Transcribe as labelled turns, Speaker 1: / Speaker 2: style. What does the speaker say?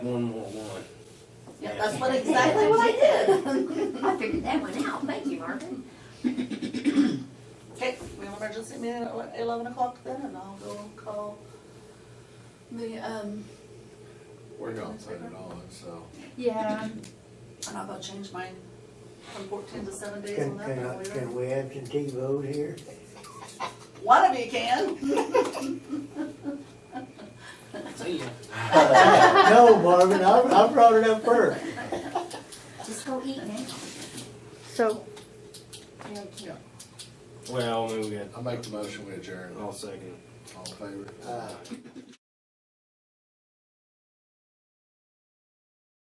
Speaker 1: One more one.
Speaker 2: Yeah, that's what exactly what I did.
Speaker 3: I figured that one out, thank you, Marvin.
Speaker 2: Okay, we have an emergency meeting at eleven o'clock then, and I'll go call the, um,
Speaker 4: We're not putting it on, so.
Speaker 3: Yeah.
Speaker 2: and I'll go change mine from fourteen to seven days on
Speaker 5: Can,
Speaker 2: that.
Speaker 5: can,
Speaker 2: that
Speaker 5: I-
Speaker 2: way we're-
Speaker 5: can we absentee vote here?
Speaker 2: One of you can.
Speaker 1: See ya.
Speaker 5: No, Marvin, I, I brought it up first.
Speaker 3: Just go eat now.
Speaker 6: So,
Speaker 4: Yeah.
Speaker 1: Well, I mean, we had,
Speaker 4: I make the motion, we adjourn.
Speaker 1: I'll second.
Speaker 4: All in favor?
Speaker 5: Uh,